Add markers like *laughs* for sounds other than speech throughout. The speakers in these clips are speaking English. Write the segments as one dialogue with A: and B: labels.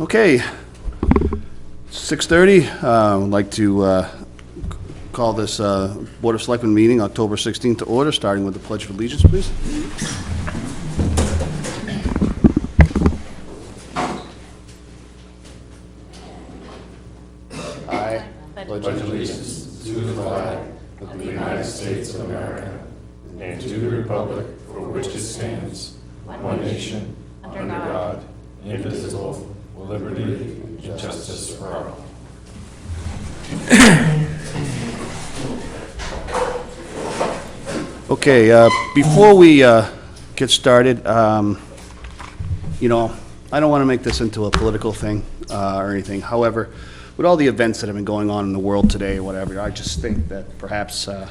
A: Okay. 6:30, uh, I'd like to uh, call this uh, Board of Selectmen meeting, October 16th, to order, starting with the Pledge of Allegiance, please. Okay, uh, before we uh, get started, um, you know, I don't want to make this into a political thing uh, or anything. However, with all the events that have been going on in the world today or whatever, I just think that perhaps uh,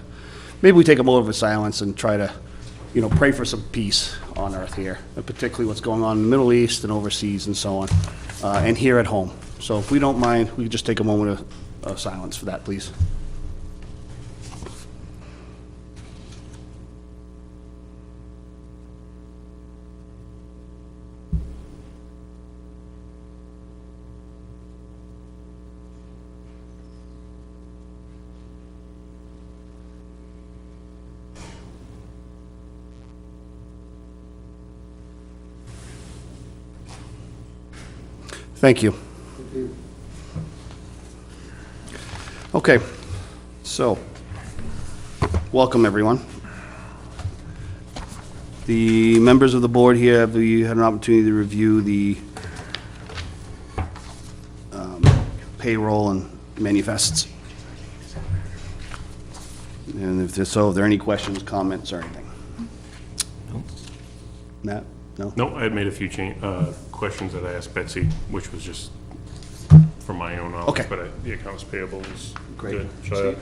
A: maybe we take a moment of silence and try to, you know, pray for some peace on earth here, and particularly what's going on in the Middle East and overseas and so on, uh, and here at home. So if we don't mind, we could just take a moment of- of silence for that, please. Thank you. Okay, so, welcome, everyone. The members of the board here, have you had an opportunity to review the um, payroll and manifests? And if there's, so, are there any questions, comments, or anything? Matt? No?
B: No, I had made a few change, uh, questions that I asked Betsy, which was just from my own
A: Okay.
B: knowledge, but I- the accounts payable is
A: Great.
B: good. So
A: Steve?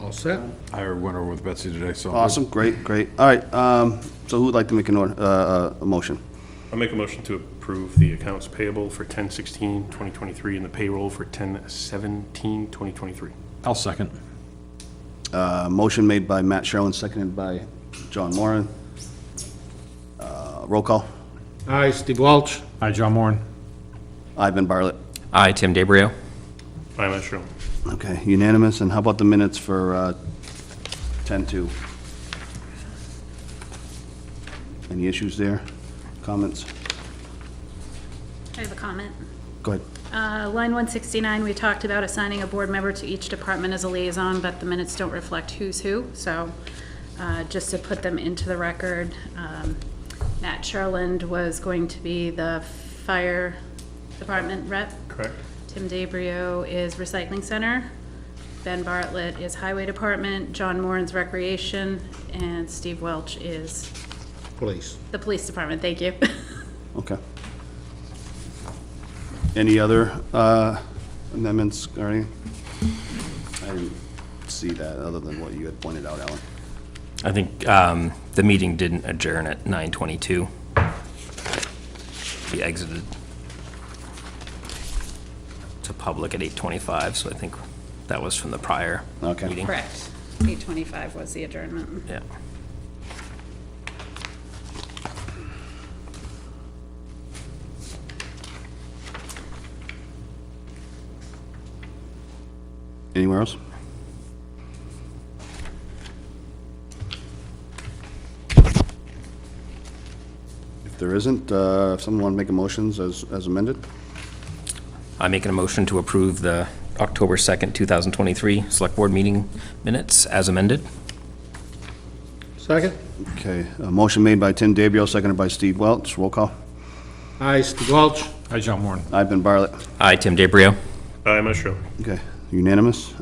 C: All set? I went over with Betsy today, so.
A: Awesome, great, great. All right, um, so who would like to make an order, uh, uh, a motion?
B: I'll make a motion to approve the accounts payable for 10/16, 2023, and the payroll for 10/17, 2023.
C: I'll second.
A: Uh, motion made by Matt Sherlin, seconded by John Moran. Uh, roll call,
C: Aye, Steve Welch. Aye, John Moran.
A: Ivan Bartlett.
D: Aye, Tim DeBrio.
B: I'm not sure.
A: Okay, unanimous, and how about the minutes for, uh, ten-two? Any issues there? Comments?
E: I have a comment.
A: Go ahead.
E: Uh, Line 169, we talked about assigning a board member to each department as a liaison, but the minutes don't reflect who's who, so uh, just to put them into the record, um, Matt Sherland was going to be the fire department rep.
B: Correct?
E: Tim DeBrio is recycling center. Ben Bartlett is highway department. John Moran's recreation. And Steve Welch is
C: Please.
E: the police department. Thank you. *laughs*
A: Okay. Any other uh, amendments, or anything? I didn't see that, other than what you had pointed out, Alan.
D: I think um, the meeting didn't adjourn at 9:22. We exited to public at 8:25, so I think that was from the prior
A: Okay.
D: meeting.
E: Correct. 8:25 was the adjournment.
D: Yeah.
A: Anywhere else? If there isn't, uh, if someone want to make a motions as as amended?
D: I'm making a motion to approve the October 2nd, 2023 Select Board meeting minutes as amended.
C: Second?
A: Okay, a motion made by Tim DeBrio, seconded by Steve Welch. Roll call.
C: Aye, Steve Welch. Aye, John Moran.
A: Ivan Bartlett.
D: Aye, Tim DeBrio.
B: I'm not sure.
A: Okay, unanimous.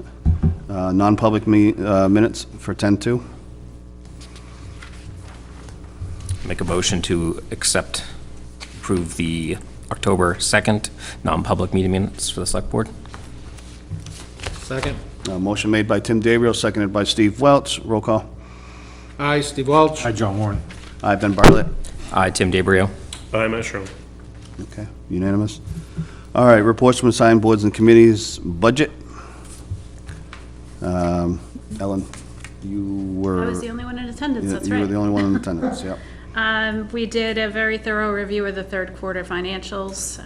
A: Uh, Non-public me- uh, minutes for 10-2.
D: Make a motion to accept, approve the October 2nd non-public meeting minutes for the Select Board.
C: Second?
A: Uh, Motion made by Tim DeBrio, seconded by Steve Welch. Roll call.
C: Aye, Steve Welch. Aye, John Moran.
A: Aye, Ben Bartlett.
D: Aye, Tim DeBrio.
B: I'm not sure.
A: Okay, unanimous. All right, reports from assigned boards and committees, budget. Um, Ellen, you were...
E: I was the only one in attendance,
A: you-
E: that's
A: You were the
E: right.
A: only one in attendance, yep.
E: Um, We did a very thorough review of the third quarter financials.